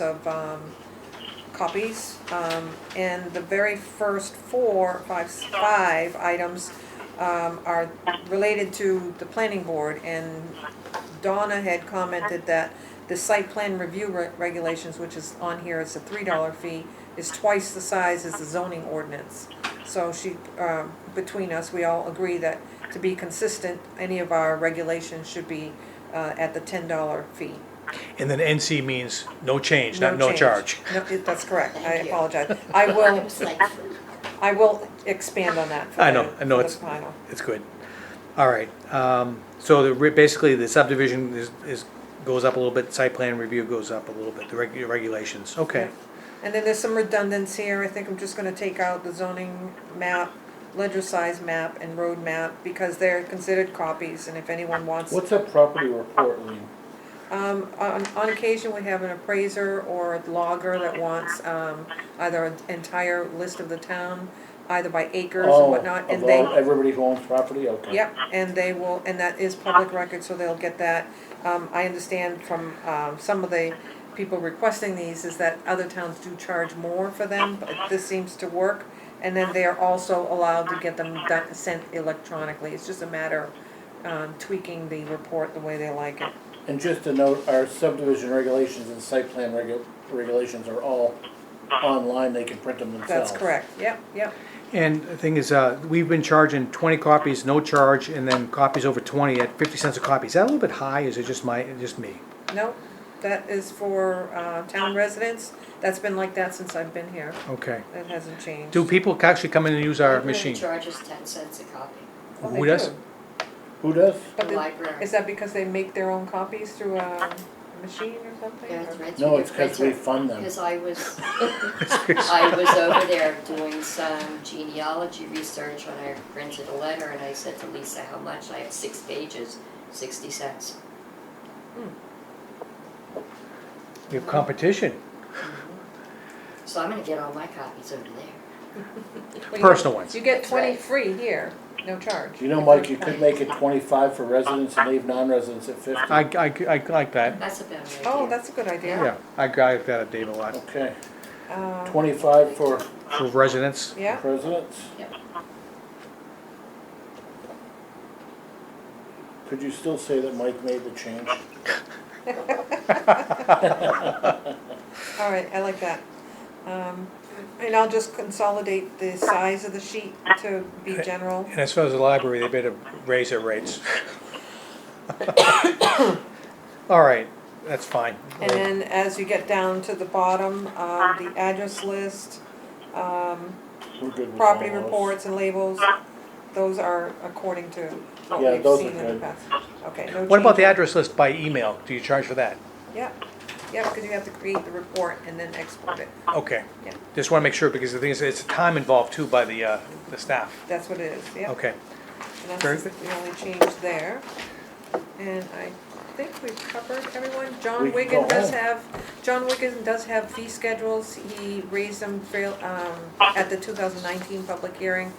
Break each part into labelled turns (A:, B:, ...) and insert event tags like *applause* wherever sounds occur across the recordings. A: of um, copies. Um, And the very first four, five, five items um, are related to the planning board. And Donna had commented that the site plan review re- regulations, which is on here, it's a three dollar fee, is twice the size as the zoning ordinance. So she, um, between us, we all agree that to be consistent, any of our regulations should be uh, at the ten dollar fee.
B: And then NC means no change, not no
A: change.
B: charge.
A: No, it- that's correct, I
C: Thank you.
A: apologize. I will,
C: It's like,
A: I will expand on that for
B: I know,
A: the-
B: I know,
A: for the
B: it's-
A: final.
B: It's good. All right, um, so the, re- basically the subdivision is, is, goes up a little bit, site plan review goes up a little bit, the reg- regulations, okay.
A: And then there's some redundance here, I think I'm just gonna take out the zoning map, ledger size map, and road map, because they're considered copies, and if anyone wants,
D: What's a property report, Lean?
A: um, on, on occasion, we have an appraiser or a logger that wants, um, either an entire list of the town, either by acres
D: Oh,
A: and whatnot, and
D: of
A: they.
D: all- Everybody who owns property, okay.
A: Yep, and they will, and that is public record, so they'll get that. Um, I understand from, um, some of the people requesting these is that other towns do charge more for them, but this seems to work. And then they are also allowed to get them done, sent electronically. It's just a matter of um, tweaking the report the way they like it.
D: And just to note, our subdivision regulations and site plan regu- regulations are all online, they can print them themselves.
A: Uh-huh. That's correct, yep, yep.
B: And the thing is, uh, we've been charging twenty copies, no charge, and then copies over twenty at fifty cents a copy. Is that a little bit high, is it just my, just me?
A: No, that is for, uh, town residents. That's been like that since I've been here.
B: Okay.
A: It hasn't changed.
B: Do people actually come in and use our
C: they're
B: *laughs*
C: gonna
B: machine?
C: Charge us ten cents a copy,
A: Well,
B: Who
A: Oh, they
B: does?
A: do.
D: Who does?
A: But
C: the
A: the-
C: library.
A: Is that because they make their own copies through um, a machine or something?
C: Yeah, it's right
D: No,
C: through
D: it's
C: the
D: because we
C: printer.
D: fund them.
C: Because I was, I was over there doing some genealogy research when I printed a letter and I said to Lisa, how much? I have six pages, sixty cents.
B: You have competition,
C: So I'm gonna get all my copies over there.
A: Well, you-
B: personal ones.
A: You get
C: That's
A: twenty
C: right.
A: free here, no charge.
D: You know, Mike, you could make it twenty-five for residents and leave non-residents at fifty.
B: I, I, I like that,
C: That's a better idea.
A: Oh, that's a good idea.
B: yeah, I, I like that, Dave, a lot.
D: Okay,
A: Um,
D: twenty-five for
B: For residents,
A: Yeah,
D: residents?
C: Yep.
D: Could you still say that Mike made the change?
A: all right, I like that. Um, And I'll just consolidate the size of the sheet to be general.
B: and as far as the library, they better raise their rates. *coughs* All right, that's fine.
A: And then as you get down to the bottom, um, the address list, um,
D: We're good with
A: property
D: all those.
A: reports and labels, those are according to what
D: Yeah,
A: we've
D: those are
A: seen in the
D: good.
A: past. Okay, no
B: What about the
A: changes.
B: address list by email? Do you charge for that?
A: Yeah, yeah, because you have to create the report and then export it.
B: Okay,
A: Yeah.
B: just wanna make sure, because the thing is, it's time involved too by the, uh, the staff.
A: That's what it is, yeah.
B: Okay,
A: And
B: very
A: that's
B: good.
A: the only change there. And I think we've covered everyone.
D: We
A: John
D: can
A: Wigan
D: go
A: does
D: home.
A: have, John Wigan does have fee schedules. He raised them fail, um, at the two thousand nineteen public hearing.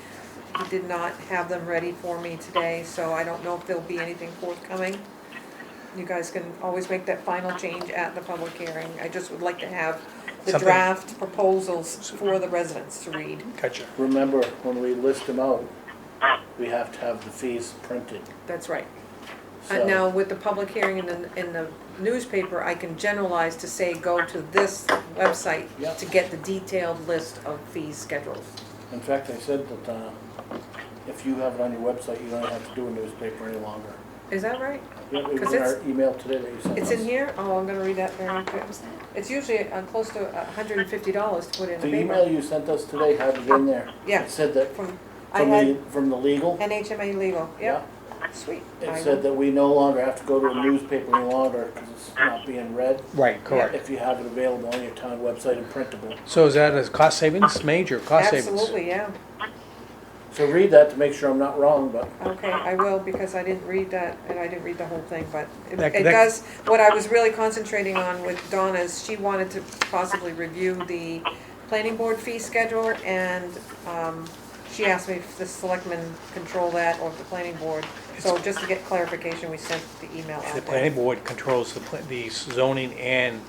A: He did not have them ready for me today, so I don't know if there'll be anything forthcoming. You guys can always make that final change at the public hearing. I just would like to have the
B: Something-
A: draft proposals for the residents to read.
B: gotcha.
D: Remember, when we list them out, we have to have the fees printed,
A: That's right.
D: so.
A: And now with the public hearing in the, in the newspaper, I can generalize to say, go to this website
D: Yep.
A: to get the detailed list of fee schedules.
D: In fact, I said that, uh, if you have it on your website, you don't have to do a newspaper any longer.
A: Is that right?
D: Yeah, It was
A: 'Cause
D: in
A: it's-
D: our email today that you sent us.
A: It's in here? Oh, I'm gonna read that very quick.
C: Uh, What was that?
A: It's usually, uh, close to a hundred and fifty dollars to put in a
D: The
A: paper.
D: email you sent us today had it in there.
A: Yeah.
D: It said that,
A: From, I
D: from the,
A: had
D: from the legal,
A: NHMA legal, yeah,
D: yeah,
A: sweet. I
D: it said that we no longer have to go to a newspaper any longer, cause it's not being read.
B: Right, correct.
D: If you have it available on your town website and printable.
B: So is that a cost savings, major cost savings?
A: Absolutely, yeah.
D: So read that to make sure I'm not wrong, but
A: Okay, I will, because I didn't read that, and I didn't read the whole thing, but it
B: That-
A: it
B: that-
A: does, what I was really concentrating on with Donna is she wanted to possibly review the planning board fee schedule, and, um, she asked me if the selectmen control that or if the planning board. So just to get clarification, we sent the email
B: The
A: out there.
B: planning board controls the, pla- the zoning and